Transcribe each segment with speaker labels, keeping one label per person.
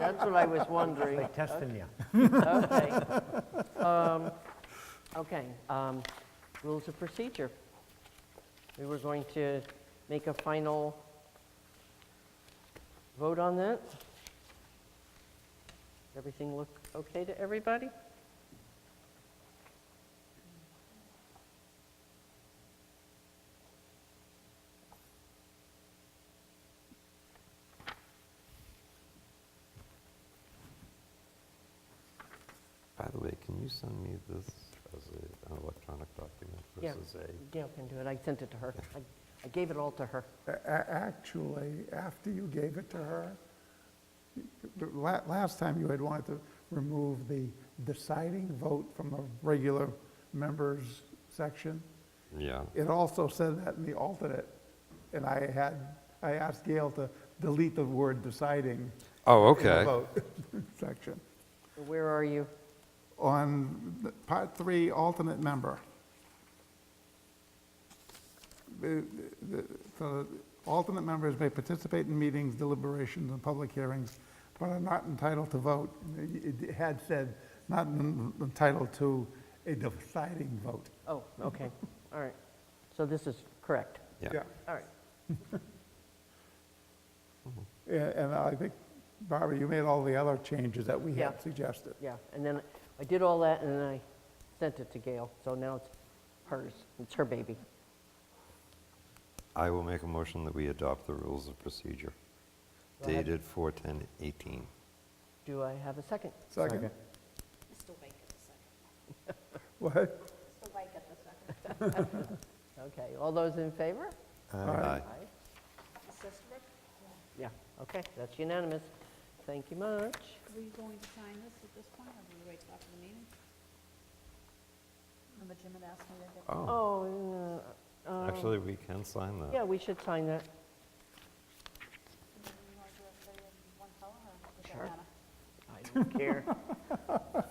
Speaker 1: That's what I was wondering.
Speaker 2: They testing you.
Speaker 1: Okay. Um, Okay, um, rules of procedure. We were going to make a final vote on that. Everything look okay to everybody?
Speaker 3: By the way, can you send me this as a- an electronic document
Speaker 1: Yeah.
Speaker 3: versus a?
Speaker 1: Gail can do it. I sent it to her. I I gave it all to her.
Speaker 4: A- a- Actually, after you gave it to her, the la- last time you had wanted to remove the deciding vote from the regular members section.
Speaker 3: Yeah,
Speaker 4: It also said that in the alternate, and I had, I asked Gail to delete the word deciding
Speaker 3: oh,
Speaker 4: in the
Speaker 3: okay.
Speaker 4: vote section.
Speaker 1: Where are you?
Speaker 4: On the part three, alternate member. The- the- the Alternate members may participate in meetings, deliberations, and public hearings, but are not entitled to vote. It it had said, not en- entitled to a deciding vote.
Speaker 1: Oh, okay, all right. So this is correct.
Speaker 3: Yeah,
Speaker 1: All right.
Speaker 4: Yeah, And I think, Barbara, you made all the other changes that we
Speaker 1: Yeah.
Speaker 4: had suggested.
Speaker 1: Yeah, and then I did all that, and then I sent it to Gail, so now it's hers, it's her baby.
Speaker 3: I will make a motion that we adopt the rules of procedure
Speaker 1: Go ahead.
Speaker 3: dated 4/10/18.
Speaker 1: Do I have a second?
Speaker 4: Second.
Speaker 5: Mr. Wake at the second.
Speaker 4: What?
Speaker 5: Mr. Wake at the second.
Speaker 1: Okay, all those in favor?
Speaker 3: Aye.
Speaker 1: Aye.
Speaker 5: Mrs. Sisterwood,
Speaker 1: Yeah, okay, that's unanimous. Thank you much.
Speaker 5: were you going to sign this at this point, or do we wait till after the meeting? Remember Jim had asked me to get...
Speaker 3: Oh,
Speaker 1: Oh, uh, uh,
Speaker 3: actually, we can sign that.
Speaker 1: yeah, we should sign that.
Speaker 5: You want to do everybody in one color, or does that
Speaker 1: Sure.
Speaker 5: matter?
Speaker 1: I don't care.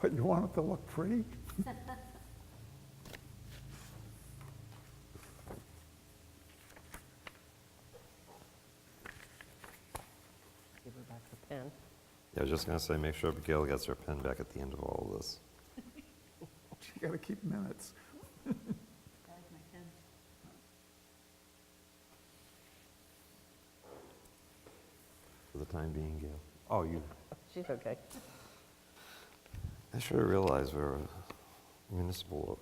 Speaker 4: But you want it to look pretty?
Speaker 1: Give her back the pen.
Speaker 3: Yeah, I was just going to say, make sure Gail gets her pen back at the end of all of this.
Speaker 4: You gotta keep minutes.
Speaker 5: Guys, my pen.
Speaker 3: For the time being, Gail. Oh, you,
Speaker 1: She's okay.
Speaker 3: I should have realized we're a municipal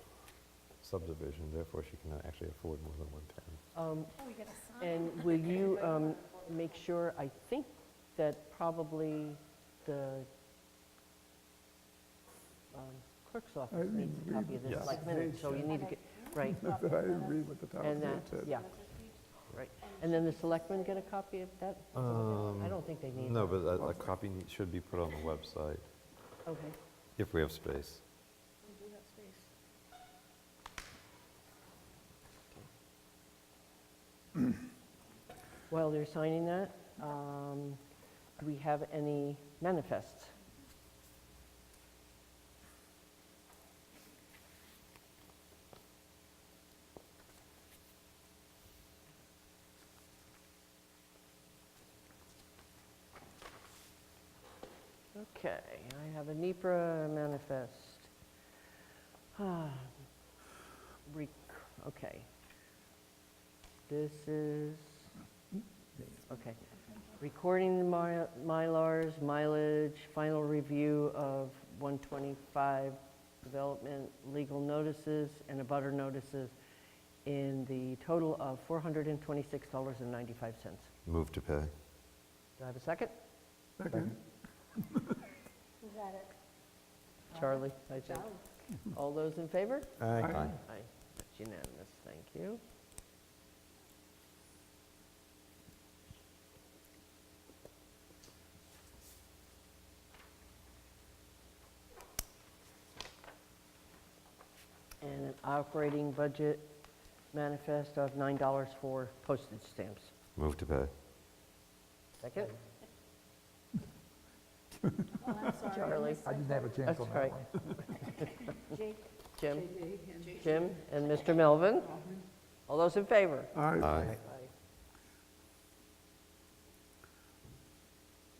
Speaker 3: subdivision, therefore she can actually afford more than one pen.
Speaker 1: Um,
Speaker 5: Oh, we got to sign.
Speaker 1: And will you um, make sure, I think that probably the um, clerk's
Speaker 4: I
Speaker 1: office needs a
Speaker 4: didn't
Speaker 1: copy
Speaker 4: read
Speaker 1: of this
Speaker 3: it.
Speaker 1: like minutes, so you need to get, right,
Speaker 4: I didn't read what the top
Speaker 1: and
Speaker 4: one
Speaker 1: that,
Speaker 4: said.
Speaker 1: yeah, right. And then the selectmen get a copy of that?
Speaker 3: Um,
Speaker 1: I don't think they need
Speaker 3: No,
Speaker 1: it.
Speaker 3: but a- a copy need- should be put on the website,
Speaker 1: Okay,
Speaker 3: if we have space.
Speaker 5: We do have space.
Speaker 1: while they're signing that, um, do we have any manifests? Okay, I have a NEPR manifest. Ah, rec- Okay. This is, okay. Recording the mi- Mylars, mileage, final review of 125 development, legal notices, and abutter notices in the total of $426.95. Do
Speaker 3: Move to pay.
Speaker 1: I have a second?
Speaker 4: Second.
Speaker 5: Who's at it?
Speaker 1: Charlie, I think.
Speaker 5: Charlie.
Speaker 1: All those in favor?
Speaker 3: Aye.
Speaker 1: Aye, that's unanimous, thank you. And an operating budget manifest of $9 for postage stamps.
Speaker 3: Move to pay.
Speaker 1: Second?
Speaker 5: Well, I'm sorry.
Speaker 1: Charlie.
Speaker 5: I
Speaker 2: I
Speaker 5: missed
Speaker 2: didn't have a chance
Speaker 1: That's
Speaker 2: on
Speaker 1: right.
Speaker 2: that one.
Speaker 5: it. Jake.
Speaker 1: Jim?
Speaker 5: JJ, and-
Speaker 1: Jim and Mr. Melvin? All those in favor?
Speaker 4: All right.
Speaker 3: Aye.
Speaker 1: Aye.